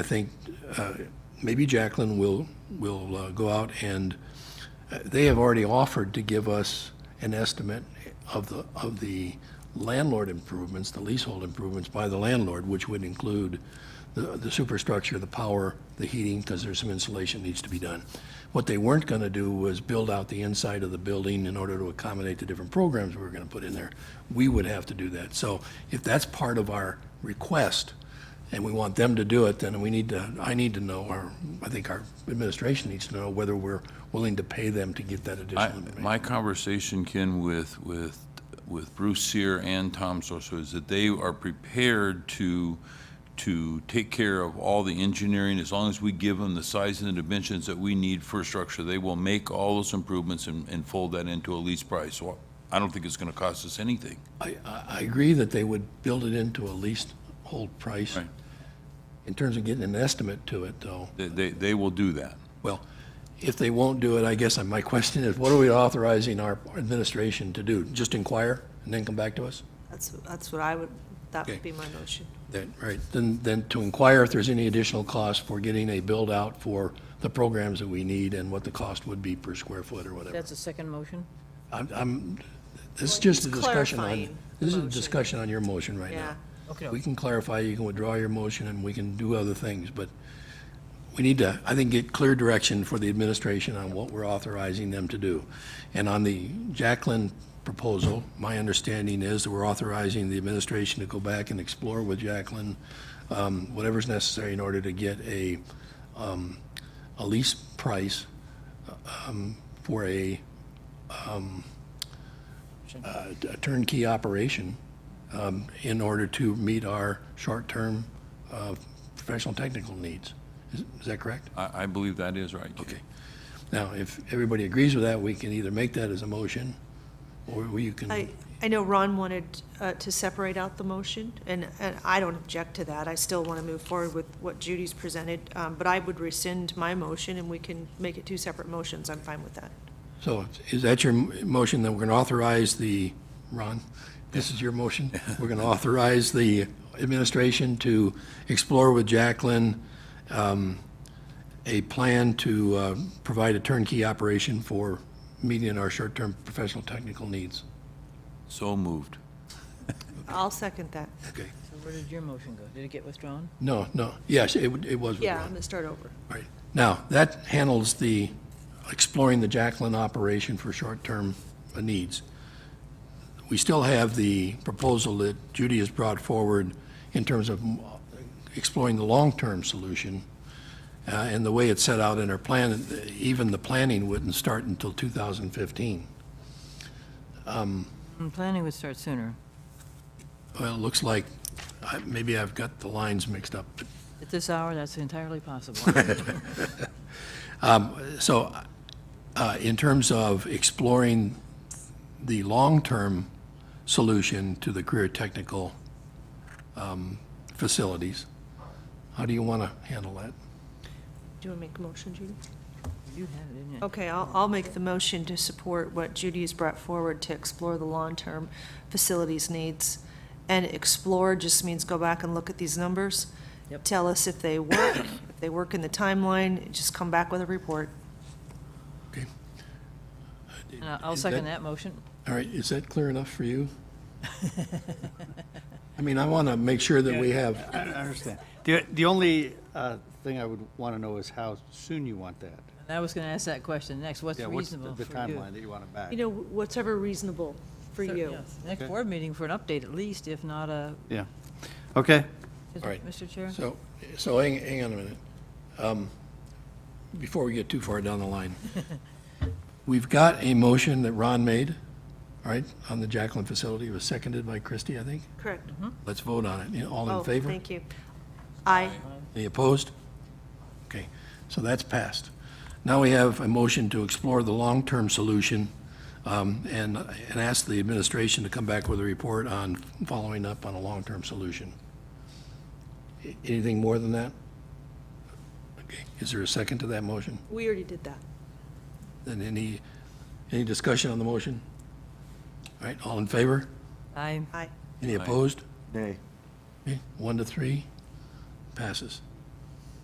I think uh, maybe Jacqueline will, will uh, go out and, uh, they have already offered to give us an estimate of the, of the landlord improvements, the leasehold improvements by the landlord, which would include the, the superstructure, the power, the heating, because there's some insulation needs to be done. What they weren't going to do was build out the inside of the building in order to accommodate the different programs we were going to put in there. We would have to do that. So if that's part of our request, and we want them to do it, then we need to, I need to know, or I think our administration needs to know whether we're willing to pay them to get that I- additional information. My conversation, Ken, with, with, with Bruce Sear and Tom Sosa is that they are prepared to, to take care of all the engineering. As long as we give them the size and the dimensions that we need for structure, they will make all those improvements and, and fold that into a lease price. So I don't think it's gonna cost us anything. I, I, I agree that they would build it into a leasehold price. Right. In terms of getting an estimate to it, though, They, they, they will do that. well, if they won't do it, I guess my question is, what are we authorizing our administration to do? Just inquire and then come back to us? That's, that's what I would, that Okay. would be my motion. That, right, then, then to inquire if there's any additional cost for getting a build-out for the programs that we need and what the cost would be per square foot or whatever. That's a second motion? I'm, I'm, this is just a he's discussion on, clarifying this is a the motion. discussion on your motion right now. Yeah. Okay. We can clarify, you can withdraw your motion, and we can do other things, but we need to, I think, get clear direction for the administration on what we're authorizing them to do. And on the Jacqueline proposal, my understanding is that we're authorizing the administration to go back and explore with Jacqueline um, whatever's necessary in order to get a, um, a lease price um, for a um, uh, a turnkey operation um, in order to meet our short-term uh, professional technical needs. Is is that correct? I, I believe that is right, Ken. Okay. Now, if everybody agrees with that, we can either make that as a motion, or we can, I, I know Ron wanted uh, to separate out the motion, and, and I don't object to that. I still want to move forward with what Judy's presented, um, but I would rescind my motion, and we can make it two separate motions. I'm fine with that. so is that your m- motion that we're going to authorize the, Ron, this is your motion? We're going to authorize the administration to explore with Jacqueline um, a plan to uh, provide a turnkey operation for meeting our short-term professional technical needs. So moved. I'll second that. Okay. So where did your motion go? Did it get withdrawn? No, no, yes, it would- it was Yeah, withdrawn. I'm going to start over. All right. Now, that handles the exploring the Jacqueline operation for short-term uh, needs. We still have the proposal that Judy has brought forward in terms of mm, exploring the long-term solution. Uh, And the way it's set out in our plan, even the planning wouldn't start until 2015. Mm, Planning would start sooner. Well, it looks like, I- maybe I've got the lines mixed up, but At this hour, that's entirely possible. So, uh, in terms of exploring the long-term solution to the career technical um, facilities, how do you want to handle that? Do you want to make a motion, Judy? You have it, Oh. didn't you? Okay, I'll, I'll make the motion to support what Judy has brought forward to explore the long-term facilities needs. And explore just means go back and look at these numbers. Yep. Tell us if they work, if they work in the timeline, just come back with a report. Okay, And I- I'll Is that- second that motion. all right, is that clear enough for you? I mean, I want to make sure that we have, I understand. The, the only uh, thing I would want to know is how soon you want that. And I was going to ask that question next. What's Yeah, what's the reasonable for the you? timeline that you want it back? You know, whatever reasonable for Sure, you. yes. Next Okay. board meeting for an update at least, if not a, Yeah. Okay. is- All right. Mr. Chair? so, so hang, hang on a minute. Um, Before we get too far down the line, we've got a motion that Ron made, all right, on the Jacqueline facility, it was seconded by Christie, I think. Correct. Let's vote on it. You know, All Mm-hmm. Oh, in favor? Thank you. Aye. Any opposed? Okay, so that's passed. Now we have a motion to explore the long-term solution um, and, and ask the administration to come back with a report on following up on a long-term solution. A- Anything more than that? Okay, is there a second to that motion? We already did that. Then any, any discussion on the motion? All right, all in favor? Aye. Aye. Any opposed? Nay. One to three, passes.